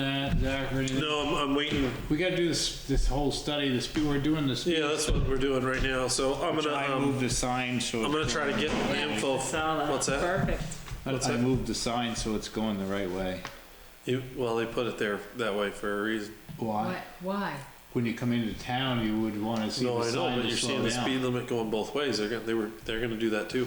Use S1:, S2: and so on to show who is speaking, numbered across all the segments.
S1: that, Zach, or anything?
S2: No, I'm, I'm waiting.
S1: We gotta do this, this whole study, this, we're doing this.
S2: Yeah, that's what we're doing right now. So I'm gonna,
S1: I
S2: um,
S1: moved the sign so.
S2: I'm
S1: it's
S2: gonna try to
S1: going-
S2: get the info.
S3: Saw that.
S2: What's that?
S3: Perfect.
S2: what's
S1: I
S2: that?
S1: moved the sign so it's going the right way.
S2: You, well, they put it there that way for a reason.
S1: Why?
S4: Why, why?
S1: When you come into town, you would wanna see
S2: No,
S1: the
S2: I know,
S1: sign
S2: but
S1: to
S2: you're seeing
S1: slow
S2: the speed
S1: down.
S2: limit going both ways. They're gonna, they were, they're gonna do that too.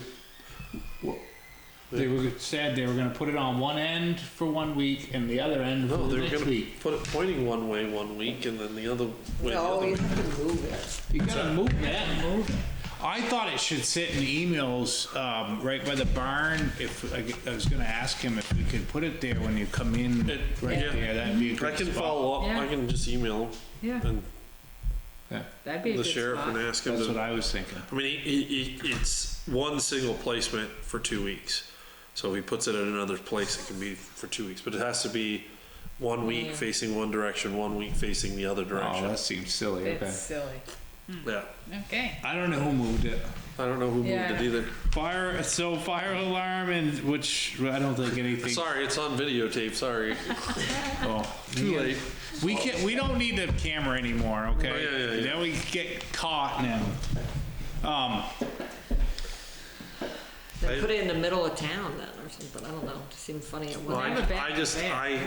S1: They were, said they were gonna put it on one end for one week and the other end for
S2: No,
S1: the
S2: they were
S1: next
S2: gonna
S1: week.
S2: put it pointing one way one week and then the other way the
S4: No,
S2: other
S4: you
S2: way.
S4: have to move it.
S1: You gotta move that. Move. I thought it should sit in emails, um, right by the barn. If, I g- I was gonna ask him if we could put it there when you come in,
S2: It-
S1: right
S2: yeah.
S1: there, that'd be a
S2: I
S1: good
S2: can
S1: spot.
S2: follow up. I
S4: Yeah.
S2: can just email
S4: Yeah,
S2: and
S4: that'd be
S2: the
S4: a good
S2: sheriff and
S4: spot.
S2: ask him
S1: That's
S2: to
S1: what I was thinking.
S2: I mean, he, he, he- it's one single placement for two weeks. So if he puts it in another place, it can be for two weeks, but it has to be one week facing one direction, one week facing the other
S1: Oh,
S2: direction.
S1: that seems silly, okay.
S4: It's silly.
S2: Yeah.
S4: Okay.
S1: I don't know who moved it.
S2: I don't know who moved it
S4: Yeah.
S2: either.
S1: Fire, so fire alarm and, which, I don't think anything.
S2: Sorry, it's on videotape. Sorry.
S1: Oh,
S2: Too
S1: yeah.
S2: late.
S1: We can, we don't need the camera anymore, okay?
S2: Oh, yeah, yeah, yeah.
S1: Now we get caught now. Um,
S2: I-
S5: They put it in the middle of town then or something, I don't know, it seemed funny at
S2: Well,
S5: one.
S2: I, I just, I,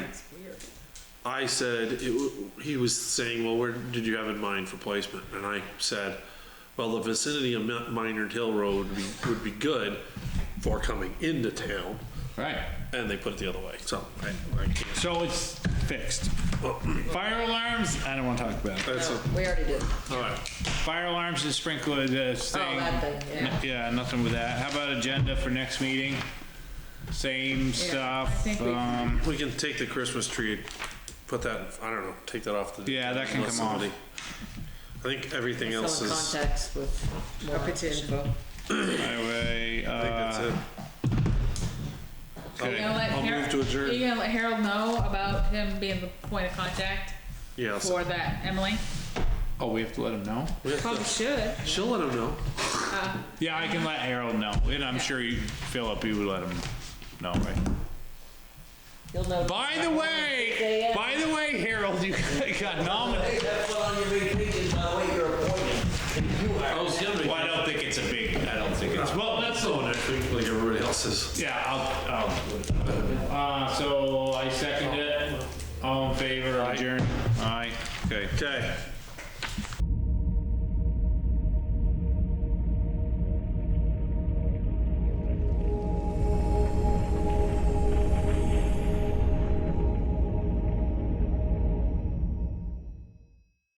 S2: I said, it w- he was saying, well, where did you have in mind for placement? And I said, well, the vicinity of Mi- Minard Hill Road would be, would be good for coming into town.
S1: right,
S2: and they put it the other way. So I, I can't.
S1: so it's fixed. Fire alarms, I don't wanna talk about it.
S2: That's
S5: We already did.
S2: all right.
S1: Fire alarms and sprinkler,
S4: Oh,
S1: the thing.
S5: that thing, yeah.
S1: N- Yeah, nothing with that. How about agenda for next meeting? Same stuff,
S4: think we-
S1: um,
S2: We can take the Christmas tree, put that. I don't know. Take that off the.
S1: Yeah, that can
S2: unless
S1: come off.
S2: somebody- I think everything
S5: Still
S2: else
S5: in
S2: is.
S5: contacts with more
S4: Up it's
S5: petition.
S4: info.
S1: highway,
S2: I think that's
S1: uh,
S2: it.
S4: You
S1: okay.
S4: gonna let
S2: I'll move
S4: Harold,
S2: to adjourn.
S4: you gonna let Harold know about him being the point of contact
S2: Yeah. So
S4: for that, Emily?
S1: Oh, we have to let him know?
S2: we have
S4: Probably
S2: to,
S4: should.
S2: she'll let him know.
S1: Yeah, I can let Harold know, and I'm sure you, Philip, you would let him know, right?
S5: You'll know.
S1: By the way, by the way, Harold, you got nominated.
S6: That's what on your vacation, by the way, your appointment.
S2: I was gonna make.
S1: Well, I don't think it's a big, I don't think it's, well, that's the one.
S2: next week, like everybody else's.
S1: Yeah, I'll, I'll. Uh, so I second it. All in favor, adjourn? Aye. Okay.
S2: Okay.